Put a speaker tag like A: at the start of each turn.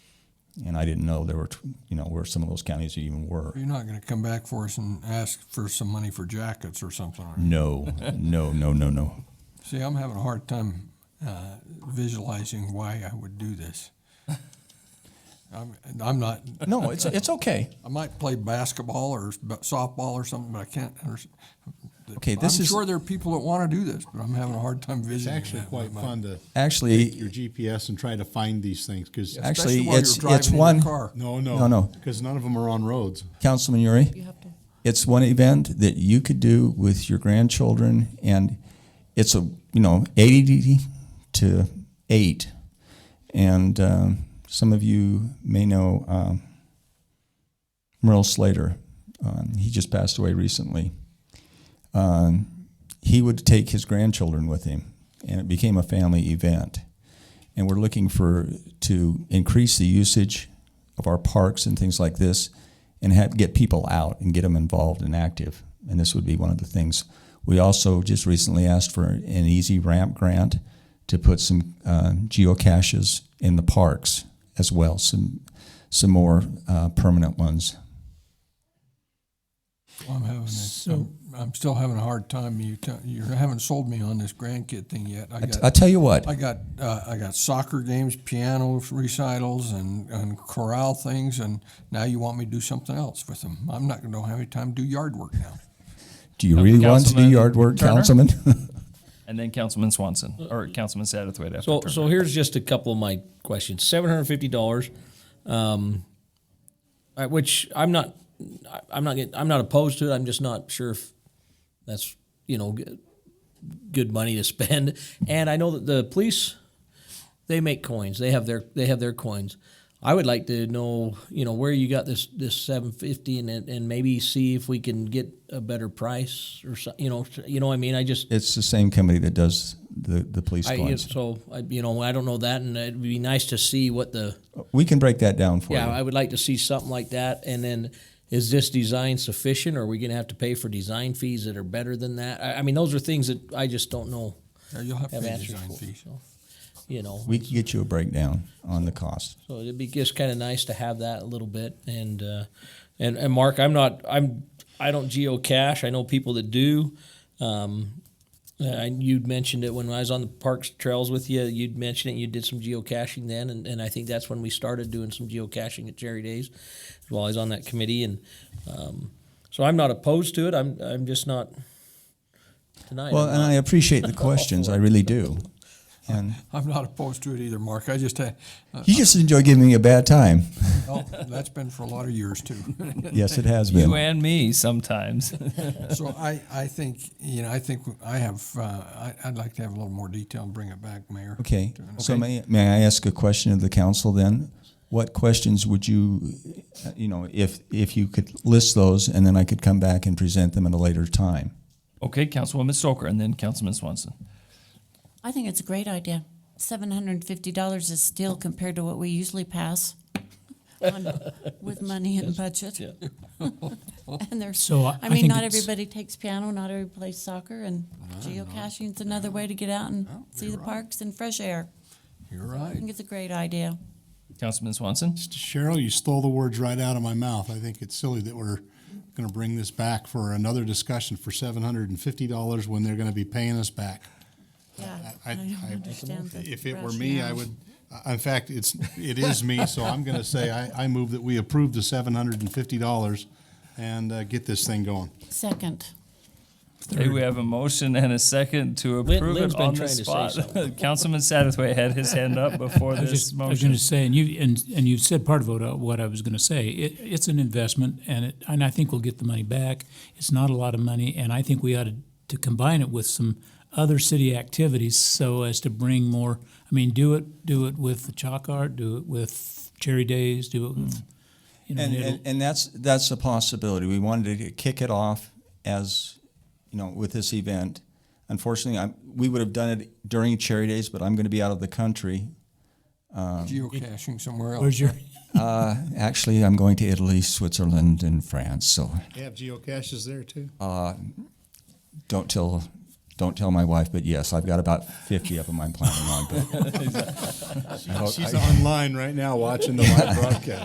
A: And I didn't know there were, tw- you know, where some of those counties even were.
B: You're not gonna come back for us and ask for some money for jackets or something, are you?
A: No, no, no, no, no.
B: See, I'm having a hard time uh, visualizing why I would do this. I'm, I'm not.
A: No, it's, it's okay.
B: I might play basketball or s- but softball or something, but I can't. understand.
A: Okay, this
B: I'm
A: is
B: sure there are people that want to do this, but I'm having a hard time
C: It's
B: visualizing.
C: actually
B: that.
C: quite fun to take your
A: actually,
C: GPS and try to find these things because
A: actually,
B: Especially while
A: it's-
B: you're driving
A: it's
B: in your
A: one-
B: car.
C: no, no,
A: No, no.
C: because none of them are on roads.
A: Councilman Uri,
D: You have to.
A: it's one event that you could do with your grandchildren and it's a, you know, 80 to 8. And um, some of you may know um, Merle Slater. Um, he just passed away recently. Um, he would take his grandchildren with him, and it became a family event. And we're looking for to increase the usage of our parks and things like this, and have, get people out and get them involved and active. And this would be one of the things. We also just recently asked for an easy ramp grant to put some uh, geocaches in the parks as well, some some more uh, permanent ones.
B: I'm having. A,
E: So-
B: I'm, I'm still having a hard time. You t- you haven't sold me on this grandkid thing yet. I
A: I, t-
B: got.
A: I tell you what,
B: I got uh, I got soccer games, piano recitals, and, and chorale things, and now you want me to do something else with them. I'm not going to have any time to do yard work now.
A: do you really want to do
F: Councilman
A: yard work,
F: Turner?
A: Councilman?
F: And then Councilman Swanson, or Councilman Satterthwaite after
E: So,
F: Turner.
E: so here's just a couple of my questions. Seven hundred fifty dollars, um, uh, which I'm not, I- I'm not, get- I'm not opposed to it. I'm just not sure if that's you know good, good money to spend. And I know that the police, they make coins. They have their they have their coins. I would like to know you know where you got this this seven fifty and and maybe see if we can get a better price or so, you know you know what I mean. I just
A: It's the same company that does the, the police
E: I,
A: coins.
E: so I, you know, I don't know that, and it'd be nice to see what the.
A: we can break that down for
E: Yeah,
A: you.
E: I would like to see something like that. And then, is this design sufficient? Or are we going to have to pay for design fees that are better than that? I, I mean, those are things that I just don't know.
B: Now, Uh, You'll have to
E: Have
B: pay
E: answers
B: design
E: for.
B: fees.
E: So, you know,
A: we can get you a breakdown on the cost.
E: so it'd be just kind of nice to have that a little bit. And uh, and and Mark, I'm not, I'm, I don't geocache. I know people that do. Um, uh, and you'd mentioned it when I was on the parks trails with you. You'd mentioned it. You did some geocaching then, and, and I think that's when we started doing some geocaching at Jerry Days, while I was on that committee. And um, so I'm not opposed to it. I'm I'm just not tonight.
A: Well,
E: I'm
A: and
E: not-
A: I appreciate the questions. I really do. And
B: I'm not opposed to it either, Mark. I just had, uh,
A: you just enjoy giving me a bad time.
B: oh, that's been for a lot of years too.
A: Yes, it has
F: you
A: been.
F: and me sometimes.
B: so I, I think you know I think I have uh, I, I'd like to have a little more detail and bring it back, Mayor.
A: Okay. So may, may I ask a question of the council then? What questions would you, uh, you know, if if you could list those and then I could come back and present them at a later time?
F: okay, Councilwoman Stoker, and then Councilman Swanson.
D: I think it's a great idea. Seven hundred and fifty dollars is still compared to what we usually pass on, with money and budget.
E: yeah.
D: And there's,
G: So I-
D: I
G: I
D: mean,
G: think
D: not
G: it's-
D: everybody takes piano, not everybody plays soccer, and geocaching's another way to get out and see the parks and fresh air.
B: You're
D: I
B: right.
D: think it's a great idea.
F: Councilman Swanson.
C: Cheryl, you stole the words right out of my mouth. I think it's silly that we're going to bring this back for another discussion for seven hundred and fifty dollars when they're going to be paying us back.
D: Yeah,
C: I-
D: I
C: I-
D: don't understand the
C: If it were me, I
D: rationale.
C: would. uh, In fact, it's it is me, so I'm going to say I, I move that we approve the seven hundred and fifty dollars and uh, get this thing going.
D: Second.
F: Okay, we have a motion and a second to
E: Lin-
F: approve
E: Lynn's
F: it
E: been
F: on the
E: trying to say
F: spot.
E: something.
F: Councilman Satterthwaite had his hand up before
G: I was
F: this
G: just, I was
F: motion.
G: going to say, and you, and, and you said part of what I- what I was going to say. It, it's an investment, and it, and I think we'll get the money back. It's not a lot of money, and I think we ought to, to combine it with some other city activities so as to bring more. I mean, do it, do it with the chalk art, do it with cherry days, do it with, you know,
A: And,
G: it'll-
A: and, and that's that's a possibility. We wanted to kick it off as you know with this event. Unfortunately, I, we would have done it during Cherry Days, but I'm going to be out of the country.
B: Geocaching somewhere else.
G: where's your?
A: Actually, I'm going to Italy, Switzerland, and France. So
C: They have geocaches there too.
A: don't tell Don't tell my wife, but yes, I've got about 50 of them I'm planning on. But I hope-
C: She's
A: I-
C: online right now watching the live broadcast.